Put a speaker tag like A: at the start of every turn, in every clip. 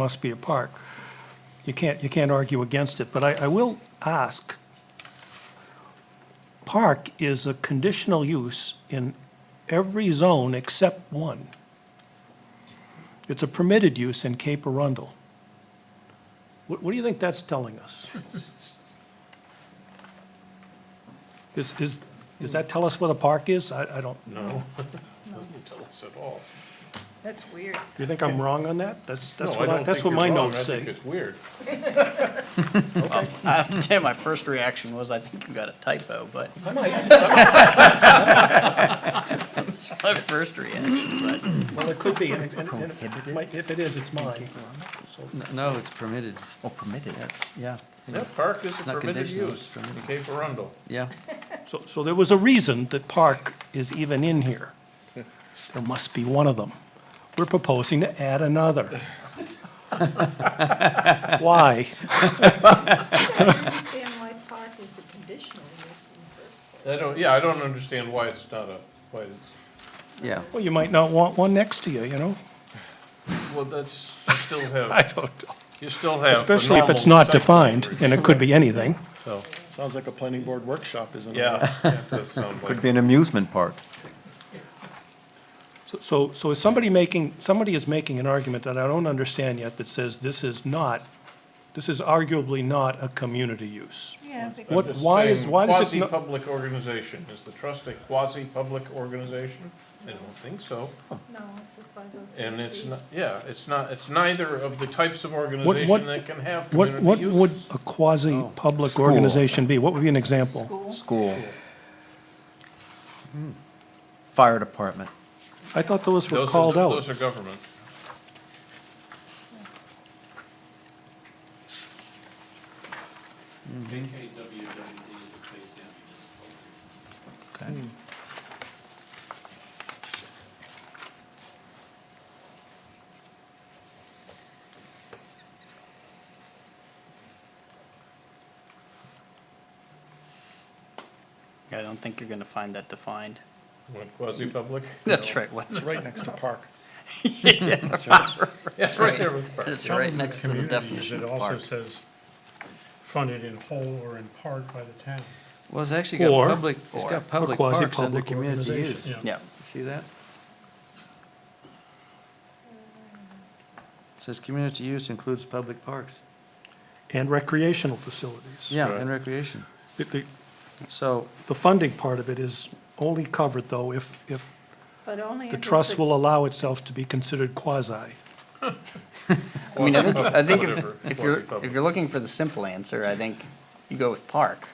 A: must be a park. You can't, you can't argue against it, but I, I will ask. Park is a conditional use in every zone except one. It's a permitted use in Cape Arundel. What, what do you think that's telling us? Is, is, does that tell us what a park is? I, I don't,
B: No. Doesn't tell us at all.
C: That's weird.
A: you think I'm wrong on that? That's, that's
B: No,
A: what,
B: I
A: I-
B: don't
A: that's
B: think
A: what
B: you're
A: my
B: wrong.
A: notes
B: I think
A: say.
B: it's weird.
D: I have to tell you, my first reaction was, I think you got a typo, but. That's My first reaction, but
A: Well, it could be, and it- and it- and it might- if it is, it's mine.
E: No, it's permitted,
F: Oh, permitted, that's,
E: yeah,
B: That park is
E: It's
B: a
E: not
B: permitted
E: conditional,
B: use
E: it's
B: in
E: permitted.
B: Cape Arundel.
E: yeah.
A: So, so there was a reason that park is even in here. There must be one of them. We're proposing to add another. Why?
C: I don't understand why park is a conditional use in the first place.
B: I don't, yeah, I don't understand why it's not a, why it's,
E: Yeah,
A: Well, you might not want one next to you, you know?
B: well, that's, you still have,
A: I don't know.
B: you still have. a
A: Especially if it's
B: normal
A: not
B: site plan
A: defined,
B: review,
A: and it could be anything.
B: So,
G: Sounds like a planning board workshop, isn't it?
B: yeah, that does sound
F: could
B: like,
F: be an amusement park.
A: So- So, so is somebody making, somebody is making an argument that I don't understand yet that says this is not, this is arguably not a community use.
C: Yeah,
A: What,
B: Just
A: why is,
B: saying
A: why does it not?
B: Quasi-public organization. Is the trust a quasi-public organization? I don't think so.
C: no, it's a five oh three
B: And it's
C: C.
B: not, yeah, it's not, it's neither of the types of
A: what-
B: organization that can have
A: What, what
B: community Oh.
A: would
B: uses.
A: a quasi-public
F: School.
A: organization be? What would be an example?
C: School,
F: School. Hmm. Fire department.
A: I thought those were
B: Those are-
A: called out.
B: Those are government.
D: I don't think you're gonna find that defined.
B: What, Quasi-public?
D: That's right, what-
G: It's right next to park.
B: Yes, right there with the park.
E: it's right next to the definition of park.
H: says funded in whole or in part by the town.
E: Well, it's actually got
A: Or-
E: public, it's
D: or
E: got public parks under
A: quasi-public
E: community use.
A: organization.
D: yeah.
E: See that? It says community use includes public parks,
A: And recreational facilities.
E: yeah,
B: Right.
E: and recreation.
A: The- The,
E: So,
A: the funding part of it is only covered, though, if, if
C: but only if
A: the
C: it's
A: trust
C: a-
A: will allow itself to be considered quasi.
D: I mean, I think, I think
B: Whatever,
D: if, if you're, if
B: quasi-public.
D: you're looking for the simple answer, I think you go with park.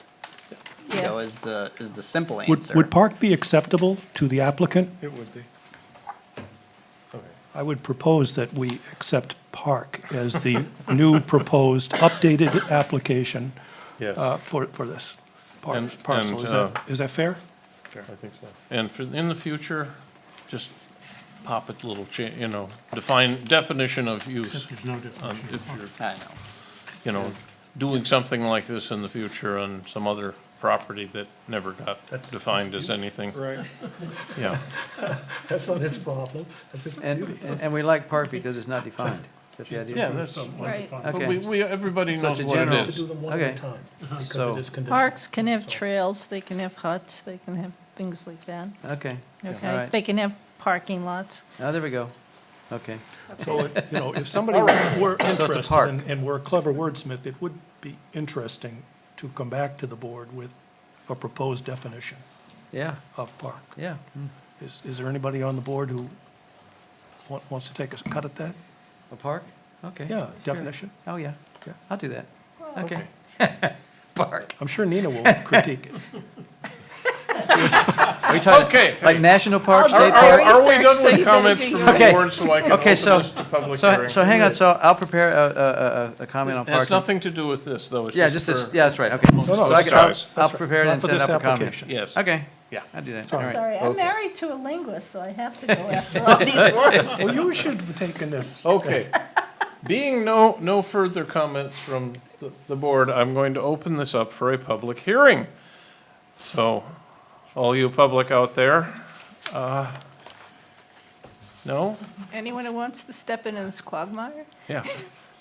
D: You know,
C: Yeah,
D: is the, is the simple
A: Would,
D: answer.
A: would park be acceptable to the applicant?
G: It would be.
A: I would propose that we accept park as the new proposed updated application
B: Yes, I
A: uh, for, for this par-
B: And-
A: parcel.
B: and,
A: Is
B: uh,
A: that, is that fair?
B: think so. And for, in the future, just pop it little, cha- you know, define, definition of use.
H: There's no
B: um,
H: definition.
B: If you're,
D: I know.
B: you know, doing something like this in the future on some other property that never got defined as anything.
G: Right.
B: Yeah,
A: That's not his problem. That's his
E: and, and and we like park because it's not defined, is that the idea?
B: yeah, that's,
C: right.
B: but we,
E: Okay,
B: we, everybody
E: So
B: knows
E: it's a
B: what it
E: general-
B: is.
A: them
E: one at a Okay. time, So- it is
C: Parks can have trails, they can have huts, they can have things like that,
E: okay, all
C: okay?
E: right,
C: They can have parking lots.
E: now there we go, okay.
A: So, it- you know, if somebody were
E: it's a
A: interested
E: park.
A: and- and were a clever wordsmith, it would be interesting to come back to the board with a proposed definition
E: Yeah,
A: of park.
E: yeah, Hmm.
A: Is, is there anybody on the board who wa- wants to take a cut at that?
E: a park, okay.
A: Yeah,
E: sure.
A: definition.
E: Oh, yeah,
A: Yeah.
E: I'll do that, okay. Park.
A: I'm sure Nina will critique it.
E: Are you talking
B: Okay,
E: like national park,
C: I'll
E: state
C: do
B: Are,
E: park?
B: are we
C: Research,
B: done
C: so you
B: with
C: better
B: comments
C: do
B: from
C: your
B: the
E: Okay.
B: board, so I can open
E: Okay, so-
B: this to public
E: So,
B: hearing?
E: so hang on, so I'll prepare a, a- a, a comment on
B: It has
E: parks. and-
B: nothing to do with this, though, it's
E: Yeah, just this,
B: for-
E: yeah, that's right, okay. So I
B: it's
E: can- I'll-
B: ours.
E: I'll prepare it
A: Not
E: and
A: for
E: send
A: this
E: up a comment.
A: application.
B: Yes.
E: Okay,
B: Yeah.
E: I'll do that, all
A: Sorry.
E: right.
C: Sorry, I'm married to a linguist, so I have to go after all these words.
A: Well, you should have taken this.
B: Okay. Being no, no further comments from the, the board, I'm going to open this up for a public hearing. So, all you public out there, uh, no?
C: Anyone who wants to step in in this quagmire?
B: Yeah.